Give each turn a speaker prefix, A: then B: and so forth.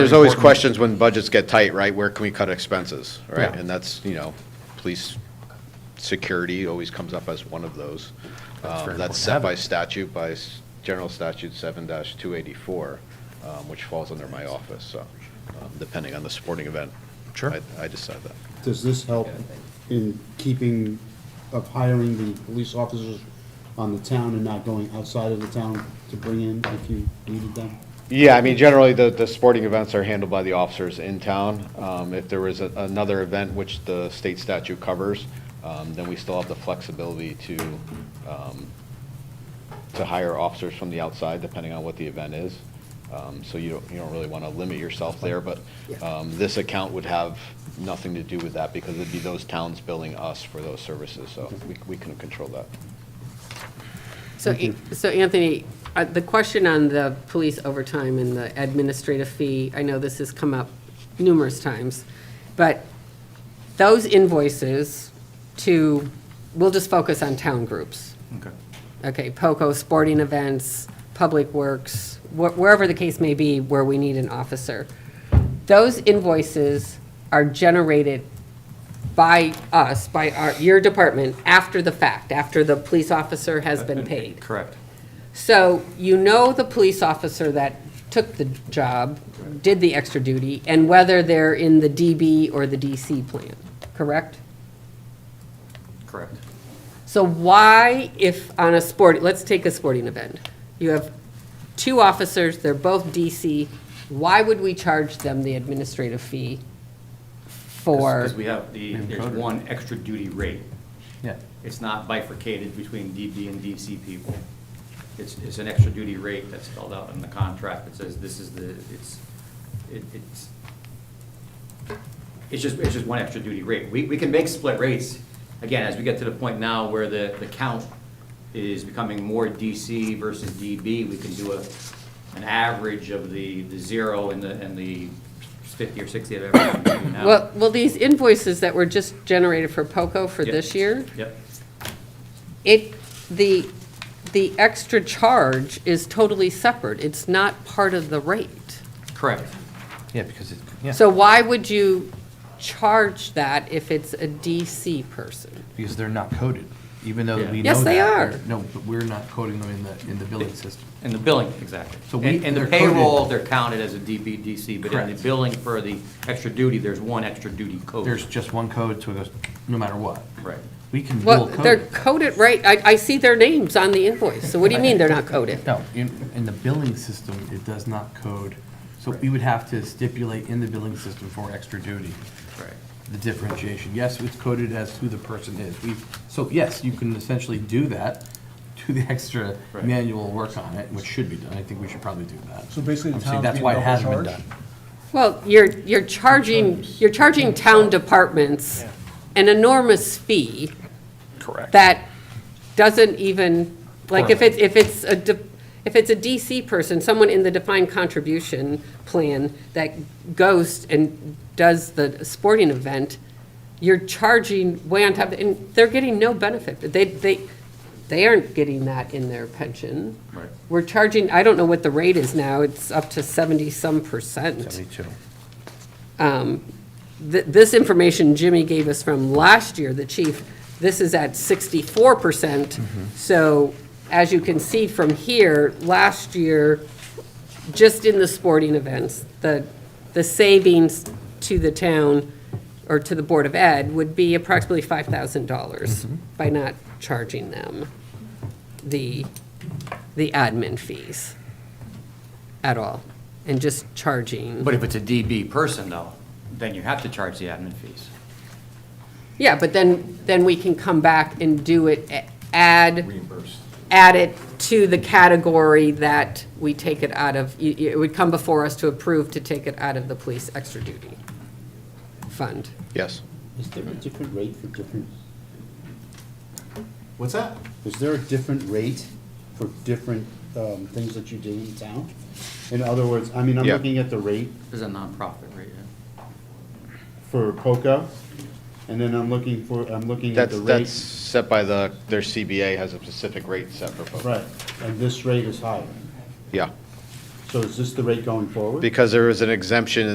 A: There's always
B: important.
A: questions when budgets get tight, right? Where can we cut expenses, right?
B: Yeah.
A: And that's, you know, police, security always comes up as one of those.
B: That's very
A: Um, That's
B: important to
A: set
B: have
A: by
B: it.
A: statute, by s- General Statute 7-284, um, which falls under my office, so um, depending on the sporting event.
B: Sure.
A: I- I decide that.
C: Does this help in keeping of hiring the police officers on the town and not going outside of the town to bring in if you needed them?
A: Yeah, I mean, generally, the, the sporting events are handled by the officers in town. Um, If there is a- another event which the state statute covers, um, then we still have the flexibility to, um, to hire officers from the outside, depending on what the event is. Um, So you don't, you don't really want to limit yourself there, but um, this account would have nothing to do with that because it'd be those towns billing us for those services, so we, we couldn't control that.
D: So, so Anthony, uh, the question on the police overtime and the administrative fee, I know this has come up numerous times, but those invoices to, we'll just focus on town groups.
B: Okay.
D: Okay, POCO, sporting events, public works, wh- wherever the case may be where we need an officer. Those invoices are generated by us, by our, your department, after the fact, after the police officer has
E: Uh,
D: been paid.
B: Correct.
D: So you know the police officer that took the job, did the extra duty, and whether they're in the DB or the DC plan, correct?
B: Correct.
D: So why, if on a sport, let's take a sporting event, you have two officers, they're both DC, why would we charge them the administrative fee for?
E: Because we have the, there's one extra duty rate.
B: Yeah.
E: It's not bifurcated between DB and DC people. It's, it's an extra duty rate that's spelled out in the contract. It says this is the, it's, it- it's, it's just, it's just one extra duty rate. We, we can make split rates, again, as we get to the point now where the, the count is becoming more DC versus DB, we can do a, an average of the, the zero and the, and the fifty or sixty of everything we do now.
D: Well, well, these invoices that were just generated for POCO for
E: Yep.
D: this year,
E: Yep.
D: it, the, the extra charge is totally separate. It's not part of the rate.
E: Correct.
B: Yeah, because it, yeah,
D: So why would you charge that if it's a DC person?
B: because they're not coded, even though
E: Yeah.
B: we know that.
D: Yes, they are.
B: No, but we're not coding them in the, in the billing system.
E: In the billing, exactly.
B: So we-
E: And and the
B: they're coded-
E: payroll, they're counted as a DBDC, but in the
B: Correct.
E: billing for the extra duty, there's one extra duty code.
B: There's just one code, so it goes, no matter what.
E: Right.
B: We can
D: Well,
B: dual code
D: they're
B: it.
D: coded right, I, I see their names on the invoice, so what do you mean they're not coded?
B: No, in, in the billing system, it does not code, so we would have to stipulate in the billing system for extra duty.
E: Right.
B: the differentiation. Yes, it's coded as who the person is. We, so yes, you can essentially do that, do the extra
E: Right.
B: manual work on it, which should be done. I think we should probably do that.
F: So basically the
B: I'm saying
F: town's
B: That's why it
F: being
B: hasn't been
F: double
B: done.
F: charged?
D: Well, you're, you're charging, you're charging town departments an enormous fee. Correct. That doesn't even, like, if it's, if it's a, de- if it's a DC person, someone in the defined contribution plan that goes and does the sporting event, you're charging way on top, and they're getting no benefit. They, they, they aren't getting that in their pension.
E: Right.
D: We're charging, I don't know what the rate is now, it's up to 70-some percent
B: Seventy-two.
D: th- this information Jimmy gave us from last year, the chief, this is at sixty-four percent. So as you can see from here, last year, just in the sporting events, the, the savings to the town or to the Board of Ed would be approximately five thousand dollars by not charging them the, the admin fees at all, and just charging.
E: But if it's a DB person though, then you have to charge the admin fees.
D: Yeah, but then, then we can come back and do it, a- add. Add it to the category that we take it out of, y- y- it would come before us to approve to take it out of the police extra duty fund.
A: Yes.
C: Is there a different rate for different,
F: What's that?
C: is there a different rate for different um, things that you do in town? In other words, I mean, I'm
A: Yeah.
C: looking at the rate
E: There's a nonprofit rate, yeah.
C: for POCO, and then I'm looking for, I'm looking at
A: That's,
C: the rate.
A: that's set by the, their CBA has a specific rate set for folks.
C: Right, and this rate is higher.
A: Yeah.
C: So is this the rate going forward?
A: Because there was an exemption